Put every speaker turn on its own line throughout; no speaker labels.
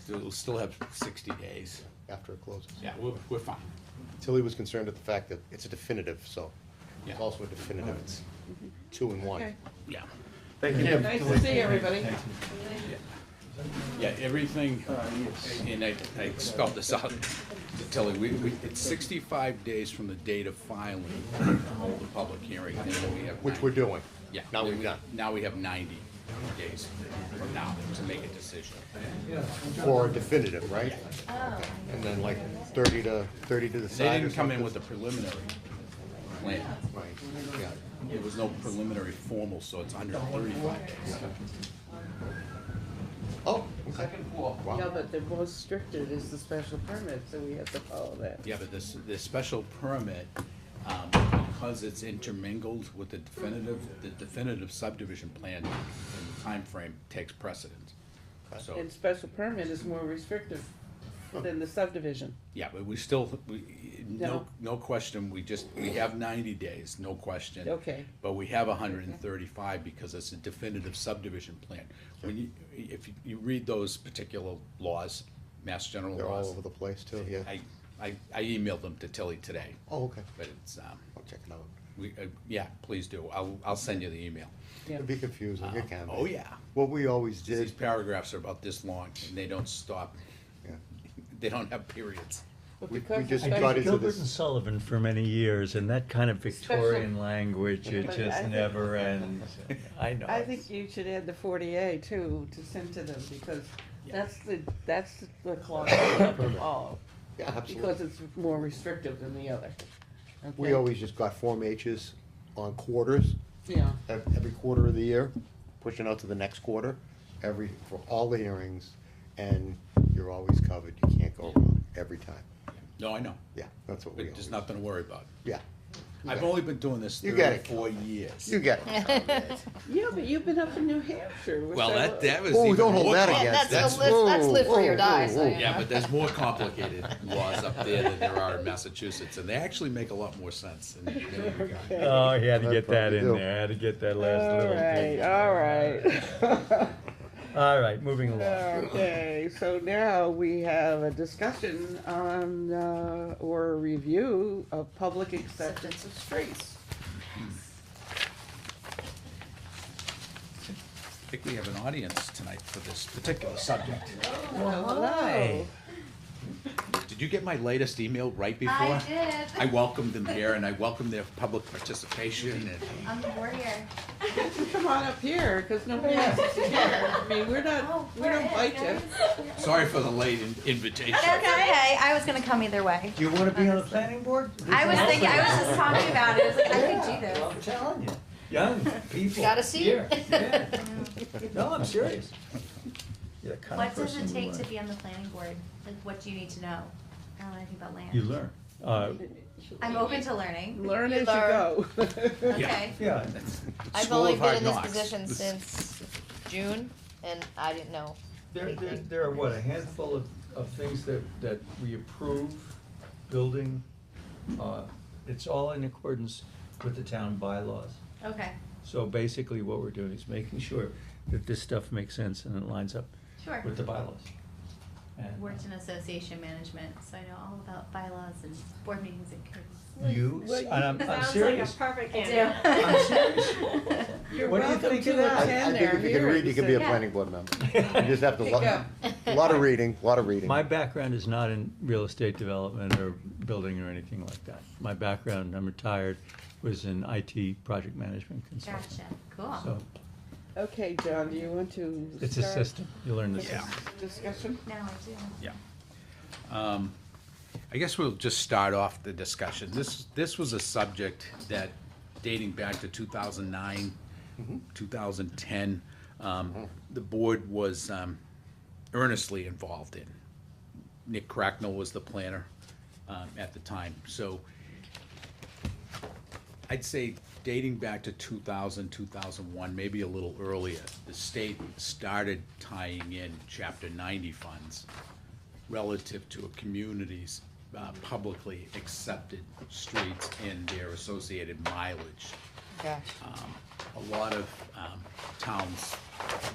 still, we'll still have sixty days.
after it closes.
Yeah, we're, we're fine.
Tilly was concerned at the fact that it's a definitive, so
Yeah.
it's also a definitive, it's two in one.
Mm-hmm. Okay.
Yeah.
Thank you.
Nice to see everybody.
Yeah, everything, and I, I spelled this out, Tilly, we, we, it's sixty-five days from the date of filing, hold the public hearing, and then we have.
Which
90
we're doing.
Yeah.
Now
then
we've
we-
done.
Now we have ninety days from now to make a decision.
For a definitive, right?
Oh.
And then like thirty to, thirty to the
They
side or
didn't come
something?
in with a preliminary plan.
Right, yeah.
There was no preliminary formal, so it's under thirty-five days.
Oh, okay.
No, but the most stricted is the special permit, so we have to follow that.
Yeah, but this, this special permit, um, because it's intermingled with the definitive, the definitive subdivision plan and the time frame takes precedence. So,
And special permit is more restrictive than the subdivision.
yeah, but we still, we, no, no question, we just, we have ninety days, no question.
Okay.
But we have hundred and thirty-five because it's a definitive subdivision plan. When you, if you- you read those particular laws, Mass General
They're all
laws,
over the place too, yeah.
I, I, I emailed them to Tilly today,
Oh, okay.
but it's, um,
I'll check it out.
We, uh, yeah, please do. I'll, I'll send you the email.
Yeah.
It'd be confusing, it can be.
oh, yeah.
What we always
These
did,
paragraphs are about this long and they don't stop.
yeah.
They don't have periods.
But
We- we
because
just
the
got
special-
into
Gilbert
this-
and Sullivan for many years, and that kind of Victorian
Special-
language, it
But I
just
think-
never ends. I know.
I think you should add the forty A too, to send to them, because that's the, that's the clause of all.
Yeah,
Because
absolutely.
it's more restrictive than the other.
We
Okay.
always just got Form H's on quarters.
Yeah,
ev- every quarter of the year, pushing out to the next quarter, every, for all the hearings, and you're always covered, you can't go wrong, every time.
No, I know,
Yeah, that's what
but
we always.
there's nothing to worry about.
Yeah.
I've only been doing this
You got it,
thirty-four years.
You get it.
yeah, but you've been up in New Hampshire. which
Well,
I
that,
love.
that was
Oh,
even
don't hold
more
that
compli-
against
that's-
us.
That's live- that's live free or
Whoa,
die,
whoa,
so,
whoa.
yeah.
Yeah, but there's more complicated laws up there than there are in Massachusetts and they actually make a lot more sense. than- than we got.
Oh, he had to
I
get that
probably
in
do.
there, had to get that last
All
little
right,
thing.
all right.
All right, moving along.
Okay, so now we have a discussion on, uh, or a review of public acceptance of streets.
I think we have an audience tonight for this particular subject.
Uh-huh.
Hello.
Did you get my latest email right before?
I did.
I welcome them here and I welcome their public participation and
I'm the warrior.
Come on up here, because nobody else is here. I mean, we're
Oh,
not, we don't
we're in,
bite you.
guys.
sorry for the late in- invitation.
That's okay. I was gonna come either way.
Do you wanna be on the planning board?
I was thinking. I was just talking about it. I was like, I could do this.
I'm telling you, young people.
Got a seat.
here, yeah. No, I'm serious. You're the kind of
What does
person
it
you
take
learn.
to be on the planning board? Like, what do you need to know? I don't know anything about land.
You learn. Uh,
I'm open to learning.
Learn as you
Learn.
go.
Okay.
yeah,
I've
School
only
of
been
Hard
in this
Knocks.
position since June, and I didn't know.
There, there, there are what, a handful of, of things that, that we approve, building, uh, it's all in accordance with the town bylaws.
Okay.
So basically what we're doing is making sure that this stuff makes sense and it lines up
Sure.
with the bylaws. And
Worked in association management, so I know all about bylaws and board meetings and committees.
You,
Well, you-
and I'm, I'm serious.
perfect
I do.
I'm serious.
You're
What do you
welcome
think
to
of that?
I,
Ten
I
attend
think
our
if you can read, you
hearings
can be a
and
Yeah.
planning board member. You just have to,
pick
lo-
up.
lot of reading, lot of reading.
My background is not in real estate development or building or anything like that. My background, I'm retired, was in IT project management
Gotcha.
consulting.
Cool.
So
Okay, John, do you want to
it's a
start
system, you learn the
this
system.
discussion?
Now I do.
Yeah. Um, I guess we'll just start off the discussion. This, this was a subject that dating back to 2009, 2010, um, the board was um, earnestly involved in. Nick Cracknell was the planner um, at the time. So I'd say dating back to 2000, 2001, maybe a little earlier, the state started tying in Chapter 90 funds relative to a community's uh, publicly accepted streets and their associated mileage.
Gosh.
Um, A lot of um, towns,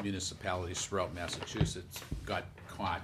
municipalities throughout Massachusetts got caught